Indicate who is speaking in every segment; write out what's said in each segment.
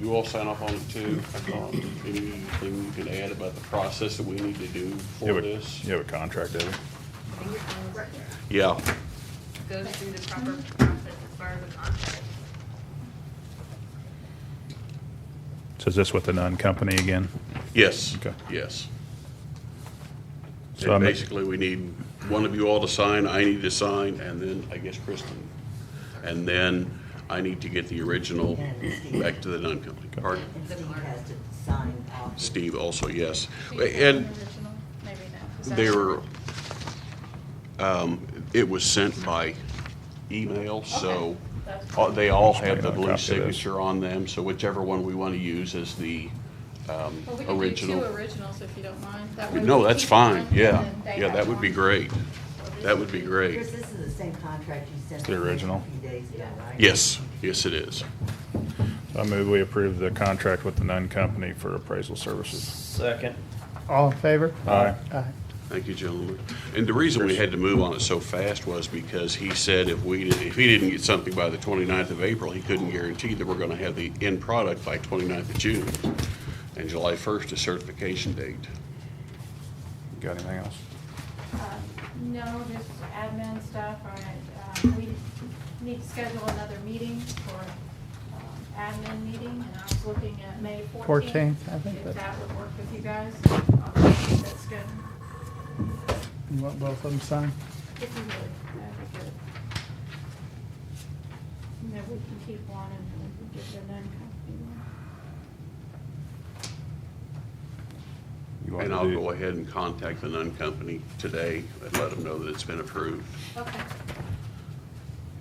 Speaker 1: you all sign off on it too. Um, Anything you can add about the process that we need to do
Speaker 2: You
Speaker 1: for
Speaker 2: have a-
Speaker 1: this?
Speaker 2: You have a contract, Evan?
Speaker 1: Yeah.
Speaker 3: Goes through the proper process as far as the contract.
Speaker 2: So is this with the nun company again?
Speaker 1: Yes,
Speaker 2: Okay.
Speaker 1: yes.
Speaker 2: So
Speaker 1: And
Speaker 2: I'm-
Speaker 1: basically, we need one of you all to sign, I need to sign, and then I guess Kristen. And then I need to get the original back to the non company. Pardon?
Speaker 4: And Steve has to sign off.
Speaker 1: Steve also, yes. And
Speaker 5: Maybe not. Is that-
Speaker 1: they were, um, it was sent by email, so uh, they all have the blue
Speaker 2: Copy this.
Speaker 1: signature on them, so whichever one we want to use is the um,
Speaker 5: Well, we can do two
Speaker 1: original.
Speaker 5: originals if you don't mind. That way we
Speaker 1: No,
Speaker 5: can
Speaker 1: that's
Speaker 5: keep
Speaker 1: fine,
Speaker 5: one and
Speaker 1: yeah.
Speaker 5: then they
Speaker 1: Yeah,
Speaker 5: have
Speaker 1: that would be
Speaker 5: one.
Speaker 1: great. That would be
Speaker 4: Chris,
Speaker 1: great.
Speaker 4: this is the same contract you sent.
Speaker 2: The original.
Speaker 4: A few days ago, right?
Speaker 1: Yes, yes, it is.
Speaker 2: I move we approve the contract with the nun company for appraisal services.
Speaker 6: Second.
Speaker 7: All in favor?
Speaker 2: Aye.
Speaker 7: Aye.
Speaker 1: Thank you, gentlemen. And the reason we had to move on it so fast was because he said if we, if he didn't get something by the 29th of April, he couldn't guarantee that we're going to have the end product by 29th of June. And July 1st is certification date.
Speaker 2: Got anything else?
Speaker 5: Uh, No, just admin stuff, all right. Um, We need to schedule another meeting for um, admin meeting, and I was looking at May 14th.
Speaker 7: 14th, I think
Speaker 5: If
Speaker 7: that's-
Speaker 5: that would work with you guys, I'll see if that's good.
Speaker 7: You want both of them signed?
Speaker 5: If you would, that'd be good. And then we can keep one and then we can get the non-company one.
Speaker 2: You want
Speaker 1: And
Speaker 2: to
Speaker 1: I'll
Speaker 2: do-
Speaker 1: go ahead and contact the Nun Company today and let them know that it's been approved.
Speaker 5: Okay.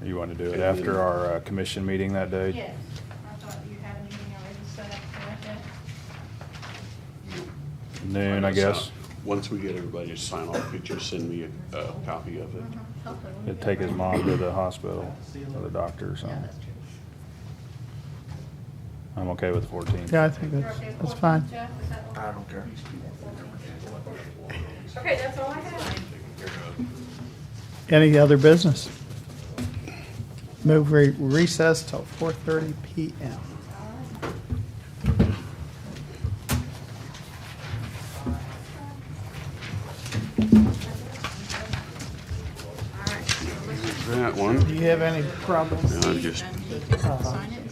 Speaker 2: You want to do it after our uh, commission meeting that day?
Speaker 5: Yes, I thought you had a meeting already set up for that day.
Speaker 2: Noon, I guess.
Speaker 1: Once we get everybody to sign off, could you send me a, a copy of
Speaker 7: Mm-hmm.
Speaker 1: it?
Speaker 5: Hopefully we'll
Speaker 2: It'd
Speaker 5: be
Speaker 2: take his
Speaker 5: around.
Speaker 2: mom to the hospital, or the doctor or
Speaker 5: Yeah,
Speaker 2: something.
Speaker 5: that's true.
Speaker 2: I'm okay with 14.
Speaker 7: Yeah, I think
Speaker 5: You're
Speaker 7: that's,
Speaker 5: okay with
Speaker 7: that's
Speaker 5: fourteen,
Speaker 7: fine.
Speaker 5: Jeff? Is that okay?
Speaker 6: I don't care.
Speaker 5: Okay, that's all I have.
Speaker 7: Any other business? Move re- recess till four thirty PM.
Speaker 1: That one.
Speaker 7: Do you have any problems?
Speaker 1: No, I'm just,
Speaker 5: And he can sign it.